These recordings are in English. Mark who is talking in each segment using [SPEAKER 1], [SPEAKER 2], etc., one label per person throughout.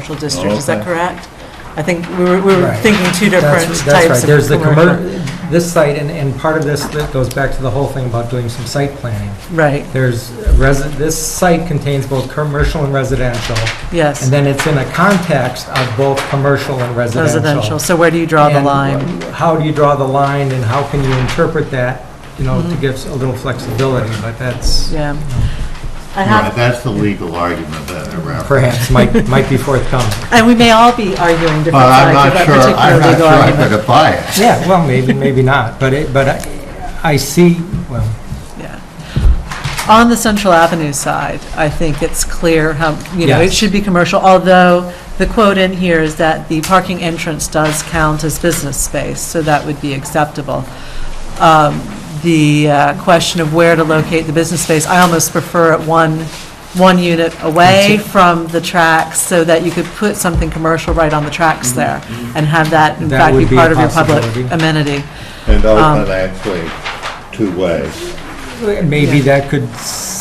[SPEAKER 1] commercial district, is that
[SPEAKER 2] Okay.
[SPEAKER 1] correct? I think we were, we were
[SPEAKER 3] Right.
[SPEAKER 1] thinking two
[SPEAKER 3] That's-
[SPEAKER 1] different types of
[SPEAKER 3] That's right, there's the
[SPEAKER 1] commercial.
[SPEAKER 3] commer, this site, and, and part of this that goes back to the whole thing about doing some site planning.
[SPEAKER 1] Right,
[SPEAKER 3] There's, resi, this site contains both commercial and residential,
[SPEAKER 1] yes,
[SPEAKER 3] and then it's in a context of both commercial and residential.
[SPEAKER 1] residential, so where do you draw the
[SPEAKER 3] And
[SPEAKER 1] line?
[SPEAKER 3] How do you draw the line, and how can you interpret that, you know, to give a little flexibility, but that's
[SPEAKER 1] Mm-hmm. Yeah. I
[SPEAKER 2] Right,
[SPEAKER 1] have,
[SPEAKER 2] that's the legal argument that I referenced.
[SPEAKER 3] perhaps might, might be forthcoming.
[SPEAKER 1] and we may all be arguing different
[SPEAKER 2] But Uh, I'm
[SPEAKER 1] sides of
[SPEAKER 2] not
[SPEAKER 1] that
[SPEAKER 2] sure, I'm
[SPEAKER 1] particular
[SPEAKER 2] not
[SPEAKER 1] legal
[SPEAKER 2] sure I'm
[SPEAKER 1] argument.
[SPEAKER 2] going to buy it.
[SPEAKER 3] Yeah, well, maybe, maybe not, but it, but I, I see, well,
[SPEAKER 1] Yeah. On the Central Avenue side, I think it's clear how, you know, it
[SPEAKER 3] Yes.
[SPEAKER 1] should be commercial, although the quote in here is that the parking entrance does count as business space, so that would be acceptable. Um, The uh, question of where to locate the business space, I almost prefer it one, one unit away from the tracks, so that you could put something commercial right on the tracks there, and have that, in
[SPEAKER 3] Mm-hmm. That
[SPEAKER 1] fact, be
[SPEAKER 3] would be a
[SPEAKER 1] part of your public
[SPEAKER 3] possibility.
[SPEAKER 1] amenity.
[SPEAKER 2] And
[SPEAKER 1] Um,
[SPEAKER 2] open actually two ways.
[SPEAKER 3] Maybe that could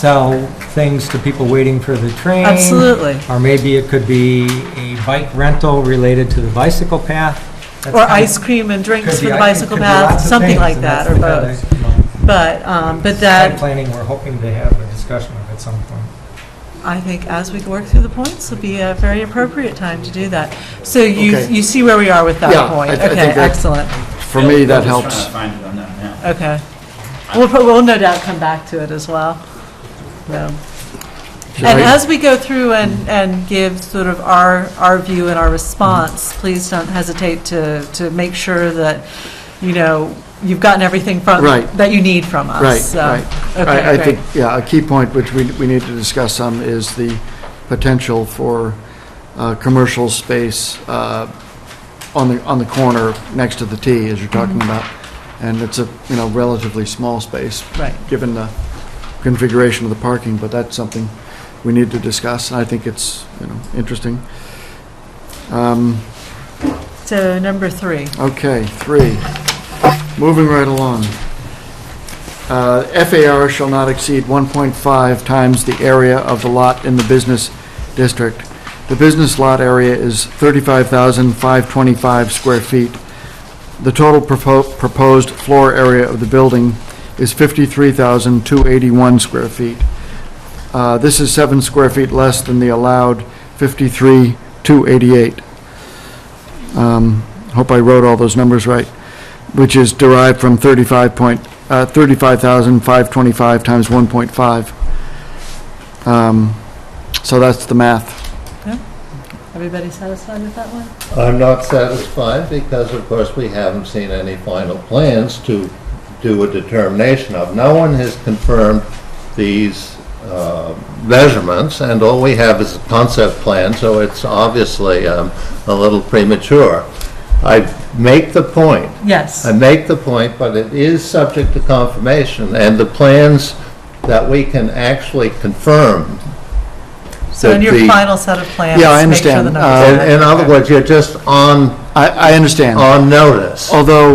[SPEAKER 3] sell things to people waiting for the train.
[SPEAKER 1] Absolutely.
[SPEAKER 3] Or maybe it could be a bike rental related to the bicycle path. That's
[SPEAKER 1] Or
[SPEAKER 3] kind of-
[SPEAKER 1] ice cream and drinks
[SPEAKER 3] could
[SPEAKER 1] for
[SPEAKER 3] be-
[SPEAKER 1] the
[SPEAKER 3] it
[SPEAKER 1] bicycle
[SPEAKER 3] could be
[SPEAKER 1] path,
[SPEAKER 3] lots of
[SPEAKER 1] something
[SPEAKER 3] things,
[SPEAKER 1] like
[SPEAKER 3] and
[SPEAKER 1] that,
[SPEAKER 3] that's
[SPEAKER 1] or
[SPEAKER 3] the kind of,
[SPEAKER 1] both.
[SPEAKER 3] you know,
[SPEAKER 1] But, um, but
[SPEAKER 3] site
[SPEAKER 1] that,
[SPEAKER 3] Planning, we're hoping to have a discussion of at some point.
[SPEAKER 1] I think as we work through the points, will be a very appropriate time to do that. So you,
[SPEAKER 4] Okay.
[SPEAKER 1] you see where we are with
[SPEAKER 4] Yeah,
[SPEAKER 1] that
[SPEAKER 4] I
[SPEAKER 1] point?
[SPEAKER 4] th- I
[SPEAKER 1] Okay,
[SPEAKER 4] think that-
[SPEAKER 1] excellent,
[SPEAKER 4] For me, that
[SPEAKER 5] I'm
[SPEAKER 4] helps.
[SPEAKER 5] just trying to find it on that map.
[SPEAKER 1] okay. We'll, pro- we'll no doubt come back to it as well. So.
[SPEAKER 4] Should
[SPEAKER 1] And
[SPEAKER 4] I-
[SPEAKER 1] as we go through and, and give sort of our, our view and our response,
[SPEAKER 4] Mm-hmm.
[SPEAKER 1] please don't hesitate to, to make sure that, you know, you've gotten everything from,
[SPEAKER 4] Right.
[SPEAKER 1] that you need from us.
[SPEAKER 4] Right,
[SPEAKER 1] So,
[SPEAKER 4] right.
[SPEAKER 1] Okay,
[SPEAKER 4] I, I
[SPEAKER 1] great.
[SPEAKER 4] think, yeah, a key point which we, we need to discuss some is the potential for uh, commercial space uh, on the, on the corner next to the T, as you're talking
[SPEAKER 1] Mm-hmm.
[SPEAKER 4] about. And it's a, you know, relatively small space,
[SPEAKER 1] Right.
[SPEAKER 4] given the configuration of the parking, but that's something we need to discuss. I think it's, you know, interesting. Um,
[SPEAKER 1] So number three,
[SPEAKER 4] Okay, three. Moving right along. Uh, FAR shall not exceed 1.5 times the area of the lot in the business district. The business lot area is 35,525 square feet. The total propo- proposed floor area of the building is 53,281 square feet. Uh, This is seven square feet less than the allowed 53,288 um, hope I wrote all those numbers right, which is derived from 35 point, uh, 35,525 times 1.5. Um, So that's the math.
[SPEAKER 1] everybody satisfied with that one?
[SPEAKER 2] I'm not satisfied because, of course, we haven't seen any final plans to do a determination of. No one has confirmed these uh, measurements, and all we have is a concept plan, so it's obviously um, a little premature. I make the point
[SPEAKER 1] Yes.
[SPEAKER 2] I
[SPEAKER 4] Um,
[SPEAKER 2] make the point, but it is subject to confirmation, and the plans that we can actually confirm.
[SPEAKER 1] So in
[SPEAKER 2] that
[SPEAKER 1] your
[SPEAKER 2] the-
[SPEAKER 1] final set of plans.
[SPEAKER 4] Yeah, I
[SPEAKER 1] make sure the
[SPEAKER 4] understand.
[SPEAKER 1] numbers
[SPEAKER 4] Uh,
[SPEAKER 1] are
[SPEAKER 2] In
[SPEAKER 1] right.
[SPEAKER 2] in other words, you're just on,
[SPEAKER 4] I, I understand.
[SPEAKER 2] on notice.
[SPEAKER 4] Although,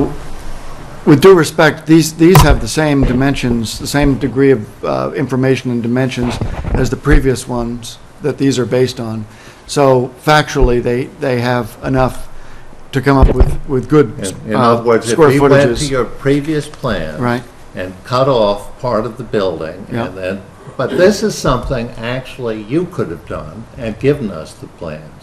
[SPEAKER 4] with due respect, these, these have the same dimensions, the same degree of uh, information and dimensions as the previous ones that these are based on. So factually, they, they have enough to come up with, with good uh,
[SPEAKER 2] In
[SPEAKER 4] square footages.
[SPEAKER 2] in other words, if we went to your previous plan.
[SPEAKER 4] Right.
[SPEAKER 2] And cut off part of the building,
[SPEAKER 4] Yeah.
[SPEAKER 2] and then, but this is something actually you could have done and given us the plans.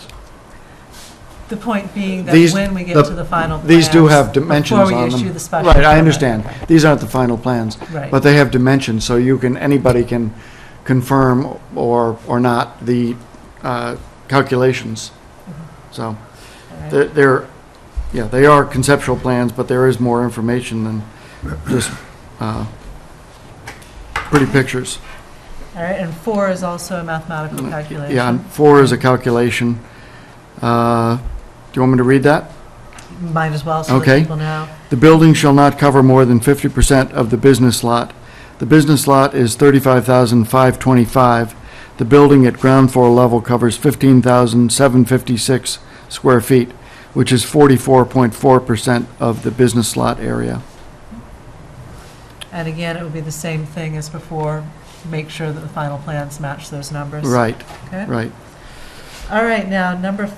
[SPEAKER 1] The point being that
[SPEAKER 4] These-
[SPEAKER 1] when we get
[SPEAKER 4] the-
[SPEAKER 1] to the final plans.
[SPEAKER 4] These do have dimensions on them.
[SPEAKER 1] Before we issue the special.
[SPEAKER 4] Right, I
[SPEAKER 1] permit.
[SPEAKER 4] understand. These aren't the final plans.
[SPEAKER 1] Right.
[SPEAKER 4] But they have dimensions, so you can, anybody can confirm or, or not the uh, calculations. So
[SPEAKER 1] All right.
[SPEAKER 4] they're- they're, yeah, they are conceptual plans, but there is more information than just uh, pretty pictures.
[SPEAKER 1] All right, and four is also a mathematical calculation.
[SPEAKER 4] Mm, Yeah, and four is a calculation. Uh, Do you want me to read that?
[SPEAKER 1] Might as well, so that
[SPEAKER 4] Okay.
[SPEAKER 1] people know.
[SPEAKER 4] The building shall not cover more than 50% of the business lot. The business lot is 35,525. The building at ground floor level covers 15,756 square feet, which is 44.4% of the business lot area.
[SPEAKER 1] And again, it would be the same thing as before, make sure that the final plans match those numbers.
[SPEAKER 4] Right,
[SPEAKER 1] Okay?
[SPEAKER 4] right.
[SPEAKER 1] All right, now, number